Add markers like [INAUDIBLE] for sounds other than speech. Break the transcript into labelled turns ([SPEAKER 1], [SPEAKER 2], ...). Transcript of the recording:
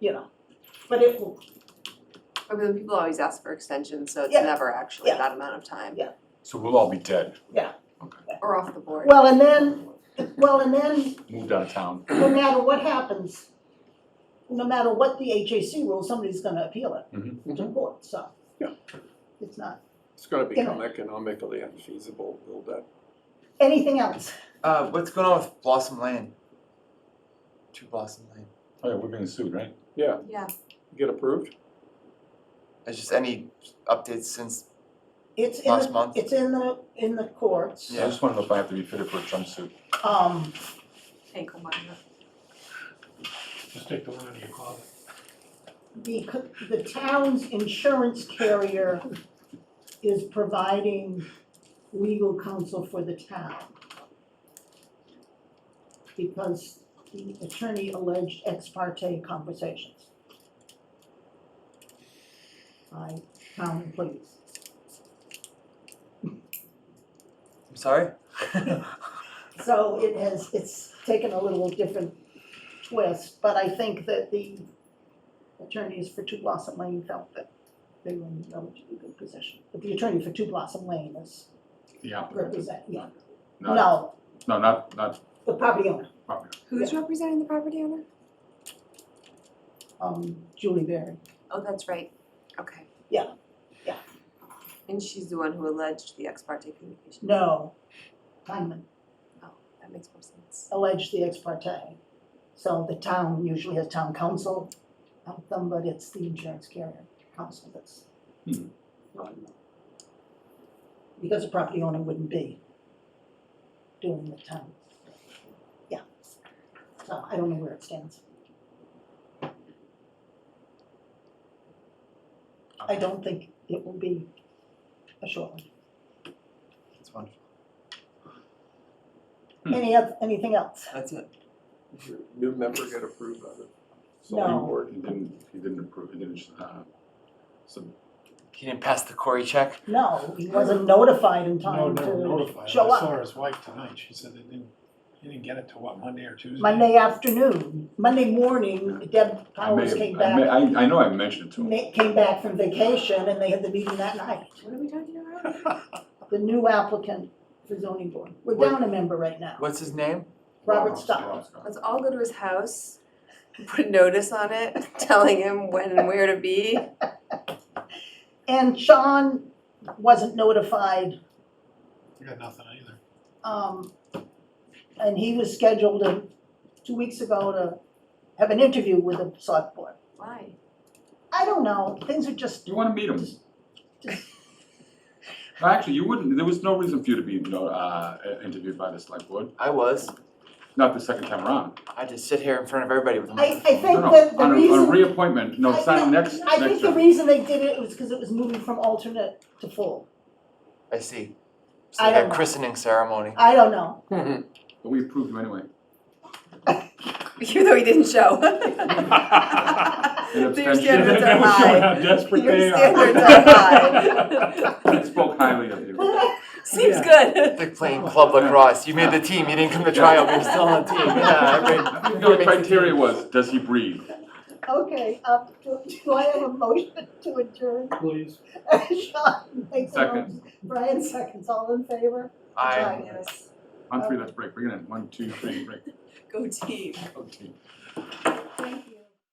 [SPEAKER 1] you know, but it will,
[SPEAKER 2] I mean, people always ask for extensions, so it's
[SPEAKER 1] Yeah.
[SPEAKER 2] never actually
[SPEAKER 1] Yeah.
[SPEAKER 2] that amount of time.
[SPEAKER 1] Yeah.
[SPEAKER 3] So we'll all be dead,
[SPEAKER 2] Or off the board.
[SPEAKER 1] well, and then, well, and then,
[SPEAKER 3] moved out of town.
[SPEAKER 1] no matter what happens, no matter what the HAC rules, somebody's gonna appeal
[SPEAKER 4] Mm-hmm.
[SPEAKER 1] it to
[SPEAKER 5] Mhm.
[SPEAKER 1] court, so.
[SPEAKER 5] Yeah.
[SPEAKER 1] It's not,
[SPEAKER 5] It's gonna become economically unfeasible, build that.
[SPEAKER 1] anything else?
[SPEAKER 4] Uh, what's going on with Blossom Lane? Two Blossom Lane.
[SPEAKER 3] Oh, yeah, we're being sued, right?
[SPEAKER 5] Yeah,
[SPEAKER 2] Yeah,
[SPEAKER 5] get approved?
[SPEAKER 4] It's just any updates since
[SPEAKER 1] It's in
[SPEAKER 4] last
[SPEAKER 1] the,
[SPEAKER 4] month?
[SPEAKER 1] it's in the, in the courts,
[SPEAKER 3] I just wanna know if I have to be fitted for a jumpsuit.
[SPEAKER 1] um,
[SPEAKER 2] ankle monitor.
[SPEAKER 6] Just take the one out of your closet.
[SPEAKER 1] the, c- the town's insurance carrier is providing legal counsel for the town. Because the attorney alleged ex parte conversations. By town employees.
[SPEAKER 4] I'm
[SPEAKER 1] [LAUGHS]
[SPEAKER 4] sorry?
[SPEAKER 1] So it has, it's taken a little different twist, but I think that the attorneys for Two Blossom Lane felt that they were in a relatively good position. But the attorney for Two Blossom Lane is
[SPEAKER 3] Yeah.
[SPEAKER 1] represent, yeah,
[SPEAKER 3] Not,
[SPEAKER 1] no,
[SPEAKER 3] no, not, not,
[SPEAKER 1] the property owner,
[SPEAKER 2] Who's representing the property owner?
[SPEAKER 1] um, Julie Berry.
[SPEAKER 2] Oh, that's right, okay.
[SPEAKER 1] Yeah, yeah.
[SPEAKER 2] And she's the one who alleged the ex parte communication.
[SPEAKER 1] No, Hyman
[SPEAKER 2] That makes more sense.
[SPEAKER 1] alleged the ex parte. So the town usually has town council help them, but it's the insurance carrier council that's.
[SPEAKER 3] Hmm.
[SPEAKER 1] running them. Because the property owner wouldn't be doing the town. Yeah. So I don't know where it stands. I don't think it will be a short one.
[SPEAKER 4] That's wonderful.
[SPEAKER 3] Hmm.
[SPEAKER 1] Any, oth- anything else?
[SPEAKER 4] That's it.
[SPEAKER 5] Your New member get approved by the
[SPEAKER 3] so
[SPEAKER 1] No.
[SPEAKER 3] he were, he didn't, he didn't approve, he didn't, uh, so
[SPEAKER 4] He didn't pass the Corey check.
[SPEAKER 1] No, he wasn't notified in
[SPEAKER 6] No,
[SPEAKER 1] time
[SPEAKER 6] never
[SPEAKER 1] to
[SPEAKER 6] notified. I
[SPEAKER 1] show up.
[SPEAKER 6] saw his wife tonight. She said they didn't, he didn't get it till what, Monday or Tuesday?
[SPEAKER 1] Monday afternoon, Monday morning, Deb
[SPEAKER 3] I may,
[SPEAKER 1] Powers came
[SPEAKER 3] I may,
[SPEAKER 1] back,
[SPEAKER 3] I, I know I mentioned it to him.
[SPEAKER 1] ma- came back from vacation and they had the meeting that night.
[SPEAKER 2] What are we talking about?
[SPEAKER 1] The new applicant for zoning board. We're
[SPEAKER 4] What-
[SPEAKER 1] down a member right now,
[SPEAKER 4] What's his name?
[SPEAKER 1] Robert
[SPEAKER 3] Oh,
[SPEAKER 1] Stock.
[SPEAKER 3] Scott.
[SPEAKER 2] Let's all go to his house, put a notice on it, telling him when and where to be.
[SPEAKER 1] And Sean wasn't notified,
[SPEAKER 6] I got nothing either.
[SPEAKER 1] um, and he was scheduled uh, two weeks ago to have an interview with the select board.
[SPEAKER 2] Why?
[SPEAKER 1] I don't know, things are just,
[SPEAKER 3] You wanna meet him? [LAUGHS] No, Actually, you wouldn't, there was no reason for you to be, no, uh, interviewed by the select board,
[SPEAKER 4] I was.
[SPEAKER 3] not the second time around.
[SPEAKER 4] I just sit here in front of everybody with a
[SPEAKER 1] I,
[SPEAKER 4] microphone.
[SPEAKER 1] I think
[SPEAKER 3] No, no,
[SPEAKER 1] that the
[SPEAKER 3] on a-
[SPEAKER 1] reason.
[SPEAKER 3] On a reappointment, no,
[SPEAKER 1] I-
[SPEAKER 3] it's not
[SPEAKER 1] no,
[SPEAKER 3] next, next
[SPEAKER 1] I think the
[SPEAKER 3] term.
[SPEAKER 1] reason they did it was because it was moving from alternate to full.
[SPEAKER 4] I see. It's
[SPEAKER 1] I
[SPEAKER 4] like a
[SPEAKER 1] don't know.
[SPEAKER 4] christening ceremony.
[SPEAKER 1] I don't know.
[SPEAKER 3] But we approved you anyway.
[SPEAKER 2] Even though he didn't [LAUGHS] show.
[SPEAKER 3] An
[SPEAKER 2] Their
[SPEAKER 3] abstention.
[SPEAKER 6] [LAUGHS]
[SPEAKER 2] standards are
[SPEAKER 3] [LAUGHS]
[SPEAKER 6] That was
[SPEAKER 2] high.
[SPEAKER 6] showing how desperate
[SPEAKER 2] Your
[SPEAKER 6] they are.
[SPEAKER 2] standards are high.
[SPEAKER 6] [LAUGHS]
[SPEAKER 3] I spoke highly of you.
[SPEAKER 2] Seems good.
[SPEAKER 4] It's like playing club lacrosse. You made the team. You didn't come to
[SPEAKER 1] [LAUGHS]
[SPEAKER 4] tryout. but You're still on the team. Yeah, I made,
[SPEAKER 3] I think the criteria was, does he breathe?
[SPEAKER 1] Okay, um, do, do I have a motion to adjourn?
[SPEAKER 6] Please.
[SPEAKER 1] [LAUGHS] Sean makes a
[SPEAKER 3] Second.
[SPEAKER 1] motion. Brian seconds, all in favor?
[SPEAKER 4] I.
[SPEAKER 2] Yes.
[SPEAKER 3] On three, let's break, bring it in, one, two, three, break.
[SPEAKER 2] Go team.
[SPEAKER 3] Okay.